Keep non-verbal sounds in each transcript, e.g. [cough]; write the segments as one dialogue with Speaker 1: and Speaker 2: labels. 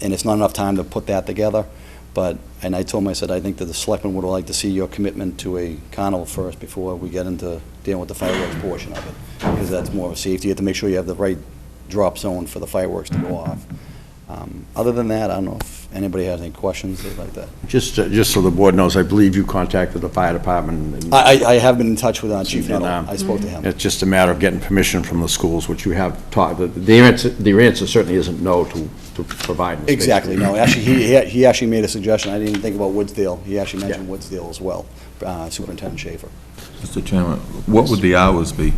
Speaker 1: and it's not enough time to put that together. But, and I told him, I said, I think that the selectmen would like to see your commitment to a carnival first before we get into dealing with the fireworks portion of it. Because that's more of a safety, you have to make sure you have the right drop zone for the fireworks to go off. Um, Other than that, I don't know if anybody has any questions they'd like that.
Speaker 2: Just, uh, just so the board knows, I believe you contacted the fire department. and
Speaker 1: I, I- I have been in touch with our chief,
Speaker 2: And,
Speaker 1: Nuttall.
Speaker 2: um,
Speaker 1: I spoke to him.
Speaker 2: It's just a matter of getting permission from the schools, which you have taught, the answer, the answer certainly isn't no to, to provide. the space.
Speaker 1: Exactly, no, actually, he, he- he actually made a suggestion, I didn't even think about Woodsdale, he actually mentioned
Speaker 2: Yeah.
Speaker 1: Woodsdale as well, uh, Superintendent Schaefer.
Speaker 3: Mr. Chairman, what would the hours be?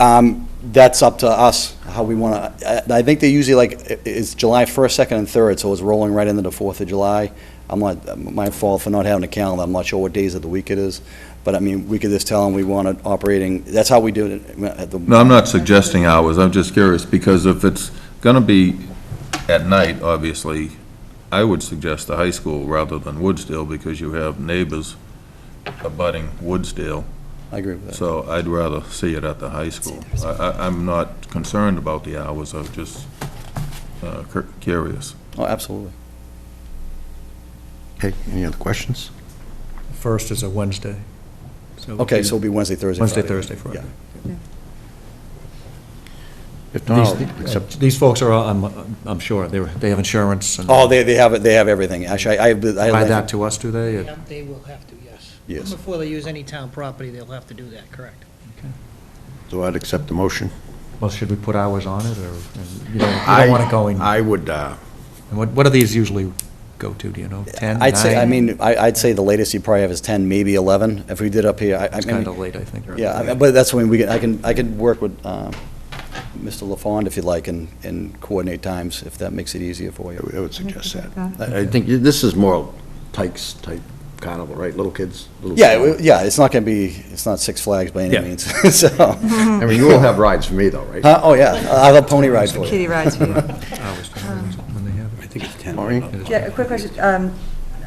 Speaker 1: Um, That's up to us, how we want to, I think they usually like, i- it's July 1st, 2nd, and 3rd, so it's rolling right into the 4th of July. I'm not, my fault for not having a calendar, I'm not sure what days of the week it is, but I mean, we could just tell them we want it operating, that's how we do it at the...
Speaker 3: No, I'm not suggesting hours, I'm just curious, because if it's gonna be at night, obviously, I would suggest the high school rather than Woodsdale, because you have neighbors abutting Woodsdale,
Speaker 1: I agree with that.
Speaker 3: so I'd rather see it at the high school. I, I, I'm not concerned about the hours, I'm just, uh, cur- curious.
Speaker 1: Oh, absolutely.
Speaker 2: Okay, any other questions?
Speaker 4: First is a Wednesday. So it'll
Speaker 1: Okay,
Speaker 4: be
Speaker 1: so it'll be Wednesday, Thursday, Friday.
Speaker 4: Wednesday, Thursday, Friday.
Speaker 1: Yeah.
Speaker 2: If
Speaker 4: These-
Speaker 2: not, I'll accept,
Speaker 4: uh, These folks are, all- I'm, I'm sure, they, were- they have insurance and.
Speaker 1: Oh, they, they have, it. they have everything, actually, I... I- I-
Speaker 4: Provide that to us, do they?
Speaker 5: Yeah, They will have to, yes.
Speaker 1: Yes.
Speaker 5: Before they use any town property, they'll have to do that, correct.
Speaker 2: so I'd accept the motion.
Speaker 4: Well, should we put hours on it, or, and you don't, you don't want it going?
Speaker 2: I would, uh,
Speaker 4: And what, what do these usually go to, do you know, 10,
Speaker 1: I'd say, I
Speaker 4: nine?
Speaker 1: mean, I- I'd say the latest you probably have is 10, maybe 11, if we did up here, I- I
Speaker 4: It's
Speaker 1: mean...
Speaker 4: kind of late, I think.
Speaker 1: Yeah, I- but that's when we, can- I can, I can work with uh, Mr. LaFond if you like, and, and coordinate times, if that makes it easier for you.
Speaker 2: I would suggest that. I I think this is more Tykes type carnival, right, little kids? little-
Speaker 1: Yeah, it- yeah, it's not gonna be, it's not Six Flags by any
Speaker 4: Yeah.
Speaker 1: means, [laughs] so, huh?
Speaker 2: I mean, you will have rides for me though, right?
Speaker 1: oh, yeah, I'll have a pony ride for you.
Speaker 6: Kitty rides for you.
Speaker 4: [laughs] Hours, when they have it.
Speaker 2: Maureen?
Speaker 4: It is-
Speaker 6: Um, Yeah, a quick question. Um,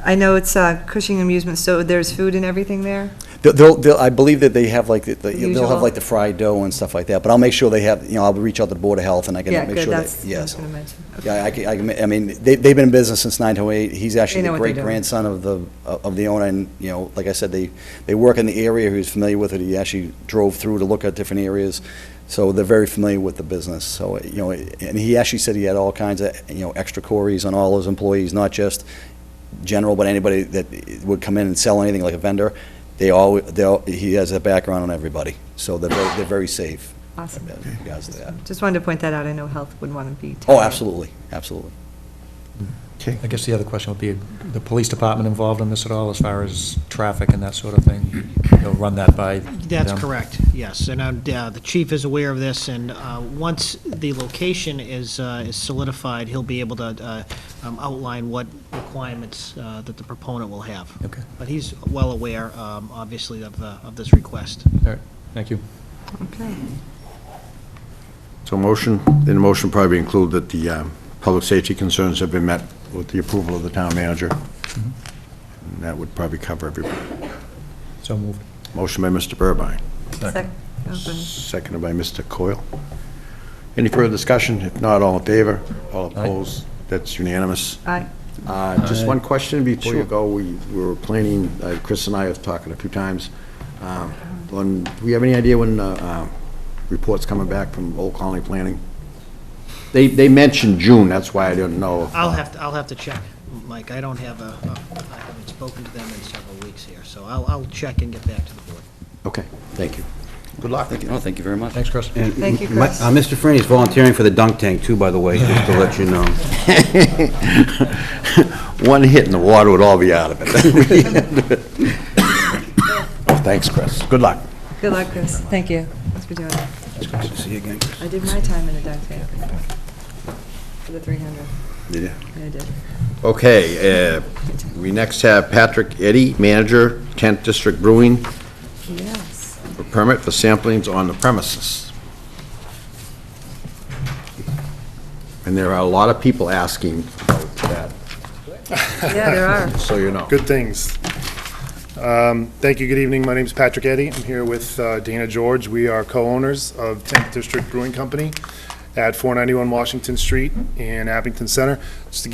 Speaker 6: I know it's uh, Cushing Amusement, so there's food and everything there?
Speaker 1: [laughs] They'll- They'll, they'll, I believe that they have like, the- the- they'll have
Speaker 6: usual.
Speaker 1: like the fried dough and stuff like that, but I'll make sure they have, you know, I'll reach out to the Board of Health and I can
Speaker 6: Yeah,
Speaker 1: make sure that,
Speaker 6: good, that's, I
Speaker 1: yeah,
Speaker 6: was
Speaker 1: so-
Speaker 6: going to mention. Okay.
Speaker 1: Yeah, I can, I can, ma- I mean, they, they've been in business since 908. He's actually
Speaker 6: They know
Speaker 1: the
Speaker 6: what they're
Speaker 1: great grandson of the, of the owner, and, you know, like I said, they, they work in the area, he's familiar with it, he actually drove through to look at different areas, so they're very familiar with the business, so, you know, and he actually said he had all kinds of, you know, extra queries on all his employees, not just general, but anybody that would come in and sell anything, like a vendor, they all, they'll, he has a background on everybody, so they're, very- they're very safe.
Speaker 6: Awesome.
Speaker 1: in regards to that.
Speaker 6: Just wanted to point that out. I know health would want to be.
Speaker 1: Oh,
Speaker 6: tied.
Speaker 1: absolutely, absolutely.
Speaker 4: I guess the other question would be, the police department involved in this at all, as far as traffic and that sort of thing? You'll run that by
Speaker 5: That's
Speaker 4: them?
Speaker 5: correct, yes. And I'm- uh, the chief is aware of this, and uh, once the location is uh, is solidified, he'll be able to uh, um, outline what requirements uh, that the proponent will have.
Speaker 4: Okay.
Speaker 5: But he's well aware, um, obviously, of the- of this request.
Speaker 4: All right, thank you.
Speaker 6: Okay.
Speaker 2: So motion, in the motion probably include that the um, public safety concerns have been met with the approval of the town manager. And that would probably cover everybody.
Speaker 4: So moved.
Speaker 2: Motion by Mr. Burbine,
Speaker 6: Sec- oh, go ahead.
Speaker 2: seconded by Mr. Coyle. Any further discussion? If not, all in favor? All opposed? That's unanimous.
Speaker 6: Aye.
Speaker 2: Uh, Just one question before you go. We we were planning, uh, Chris and I have talked a few times. um, on- Do we have any idea when uh, uh, reports coming back from Old Colony Planning? They, they mentioned June, that's why I didn't know.
Speaker 5: I'll have, to. I'll have to check, Mike. I don't have a, a- I haven't spoken to them in several weeks here, so I'll I'll check and get back to the board.
Speaker 2: Okay, thank you. Good luck.
Speaker 1: Thank you, no, thank you very much.
Speaker 4: Thanks, Chris.
Speaker 7: And
Speaker 6: Thank you,
Speaker 7: m- my-
Speaker 6: Chris.
Speaker 7: uh, Mr. Freeney's volunteering for the dunk tank, too, by the way, just to let you know.
Speaker 2: [laughs] One hit in the water would all be out of it. [laughs] Thanks, Chris. Good luck.
Speaker 6: Good luck, Chris. Thank you. Thanks for doing it.
Speaker 7: It's good to see you again.
Speaker 6: I did my time in the dunk tank for the 300.
Speaker 2: Did ya?
Speaker 6: Yeah, I did.
Speaker 2: Okay, uh, we next have Patrick Eddy, manager, 10th District Brewing,
Speaker 6: Yes.
Speaker 2: for permit for samplings on the premises. And there are a lot of people asking about that,
Speaker 6: Yeah, there are.
Speaker 2: so you know.
Speaker 8: Good things. Um, Thank you, good evening. My name is Patrick Eddy. I'm here with uh, Dana George. We are co-owners of 10th District Brewing Company at 491 Washington Street in Abington Center. Just to give